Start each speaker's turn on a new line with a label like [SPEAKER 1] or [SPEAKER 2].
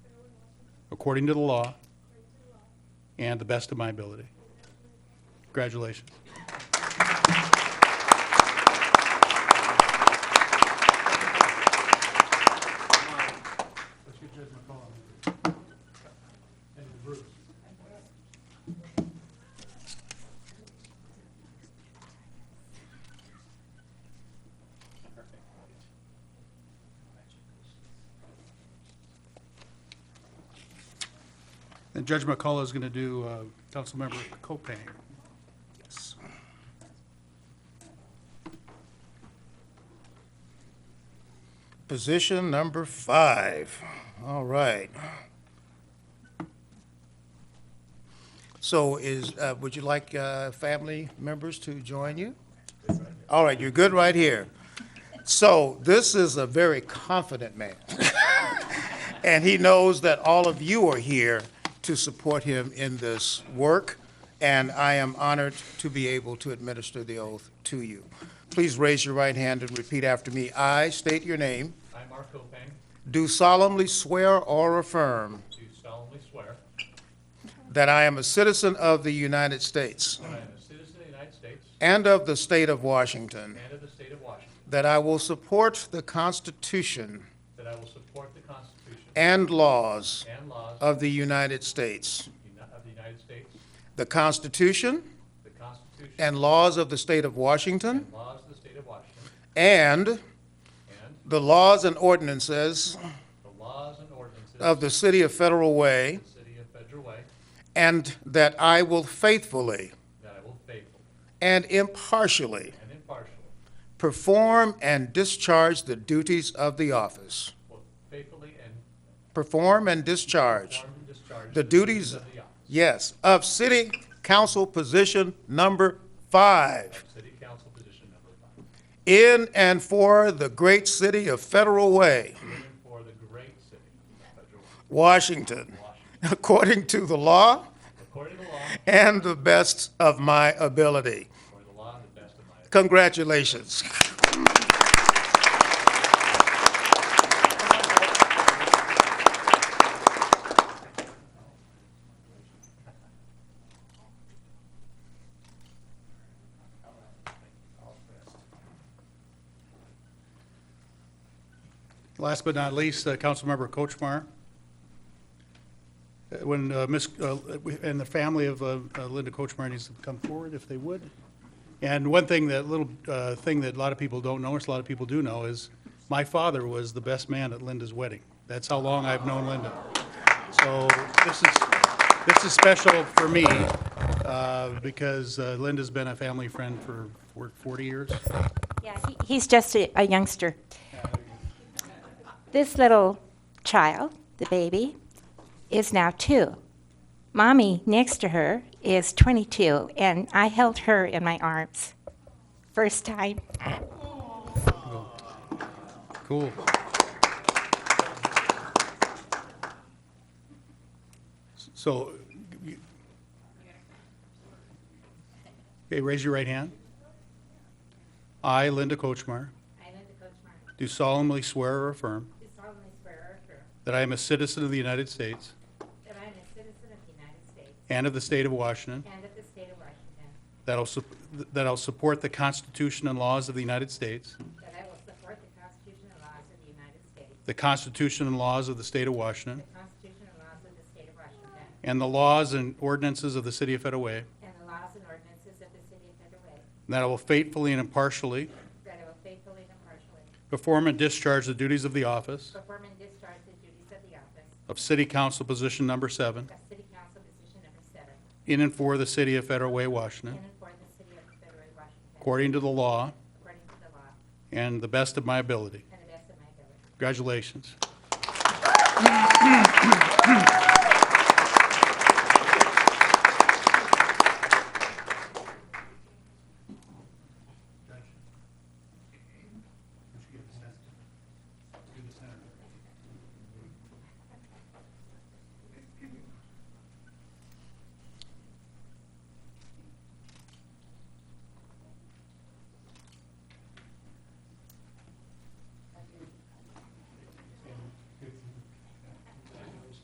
[SPEAKER 1] according to the law and the best of my ability. Congratulations. And Judge McCullough is going to do uh, Councilmember Copang. Yes.
[SPEAKER 2] Position number five. All right. So is, uh, would you like uh, family members to join you? All right, you're good right here. So this is a very confident man. And he knows that all of you are here to support him in this work, and I am honored to be able to administer the oath to you. Please raise your right hand and repeat after me. I state your name,
[SPEAKER 3] I, Mark Copang,
[SPEAKER 2] do solemnly swear or affirm
[SPEAKER 3] do solemnly swear
[SPEAKER 2] that I am a citizen of the United States
[SPEAKER 3] that I am a citizen of the United States
[SPEAKER 2] and of the state of Washington,
[SPEAKER 3] and of the state of Washington,
[SPEAKER 2] that I will support the Constitution
[SPEAKER 3] that I will support the Constitution
[SPEAKER 2] and laws
[SPEAKER 3] and laws of
[SPEAKER 2] of the United States,
[SPEAKER 3] the Uni- of the United States,
[SPEAKER 2] the Constitution
[SPEAKER 3] the Constitution
[SPEAKER 2] and laws of the state of Washington,
[SPEAKER 3] and laws of the state of Washington,
[SPEAKER 2] and
[SPEAKER 3] and
[SPEAKER 2] the laws and ordinances
[SPEAKER 3] the laws and ordinances
[SPEAKER 2] of
[SPEAKER 3] of
[SPEAKER 2] the City of Federal Way,
[SPEAKER 3] the city of Federal Way,
[SPEAKER 2] and that I will faithfully
[SPEAKER 3] that I will faithfully
[SPEAKER 2] and impartially
[SPEAKER 3] and impartially,
[SPEAKER 2] perform and discharge the duties of the office.
[SPEAKER 3] will faithfully and
[SPEAKER 2] Perform and discharge,
[SPEAKER 3] perform and discharge
[SPEAKER 2] The duties-
[SPEAKER 3] of the office
[SPEAKER 2] yes, of City Council Position Number Five
[SPEAKER 3] of city council position number five,
[SPEAKER 2] in and for the great city of Federal Way,
[SPEAKER 3] in and for the great city of Federal Way,
[SPEAKER 2] Washington,
[SPEAKER 3] Washington,
[SPEAKER 2] according to the law
[SPEAKER 3] according to the law,
[SPEAKER 2] and the best of my ability.
[SPEAKER 3] or the law to the best of my ability.
[SPEAKER 2] Congratulations.
[SPEAKER 1] Last but not least, uh, Councilmember Kochmar. Uh, When uh, Miss, uh, we- and the family of uh, uh, Linda Kochmar needs to come forward if they would. And one thing, that little uh, thing that a lot of people don't know, or a lot of people do know, is my father was the best man at Linda's wedding. That's how long I've known Linda. So this is, this is special for me uh, because uh, Linda's been a family friend for for 40 years.
[SPEAKER 4] Yeah, he, he's just a, a youngster. This little child, the baby, is now two. Mommy next to her is 22, and I held her in my arms. First time.
[SPEAKER 1] Cool. So, you- okay, raise your right hand. I, Linda Kochmar,
[SPEAKER 4] I, Linda Coachmar,
[SPEAKER 1] do solemnly swear or affirm
[SPEAKER 4] do solemnly swear or affirm
[SPEAKER 1] that I am a citizen of the United States
[SPEAKER 4] that I am a citizen of the United States
[SPEAKER 1] and of the state of Washington,
[SPEAKER 4] and of the state of Washington,
[SPEAKER 1] that I'll sup- that I'll support the Constitution and laws of the United States,
[SPEAKER 4] that I will support the Constitution and laws of the United States,
[SPEAKER 1] the Constitution and laws of the state of Washington,
[SPEAKER 4] Constitution and laws of the state of Washington,
[SPEAKER 1] and the laws and ordinances of the city of Federal Way, and
[SPEAKER 4] and the laws and ordinances of the city of Federal Way,
[SPEAKER 1] that I will faithfully and impartially
[SPEAKER 4] That I will faithfully and impartially
[SPEAKER 1] Perform and discharge the duties of the office
[SPEAKER 4] perform and discharge the duties of the office
[SPEAKER 1] of City Council Position Number Seven
[SPEAKER 4] of City Council Position Number Seven
[SPEAKER 1] in and for the City of Federal Way,
[SPEAKER 4] in
[SPEAKER 1] Washington,
[SPEAKER 4] and for the City of Federal, Washington,
[SPEAKER 1] according to the law
[SPEAKER 4] according to the law and
[SPEAKER 1] and the best of my ability.
[SPEAKER 4] the best of my ability.
[SPEAKER 1] Congratulations.